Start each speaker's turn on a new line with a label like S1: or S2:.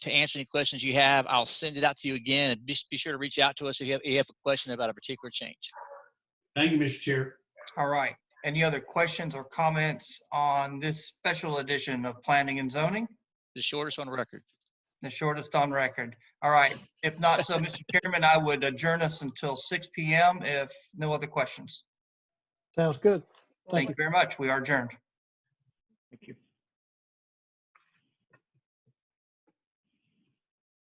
S1: to answer any questions you have. I'll send it out to you again. and Just be sure to reach out to us if you have, if you have a question about a particular change.
S2: Thank you, Mr. Chair.
S3: All right. Any other questions or comments on this special edition of Planning and Zoning?
S1: The shortest on record.
S3: The shortest on record. All right. If not, so Mr. Chairman, I would adjourn us until 6 PM if no other questions.
S4: Sounds good.
S3: Thank you very much. We are adjourned.
S1: Thank you.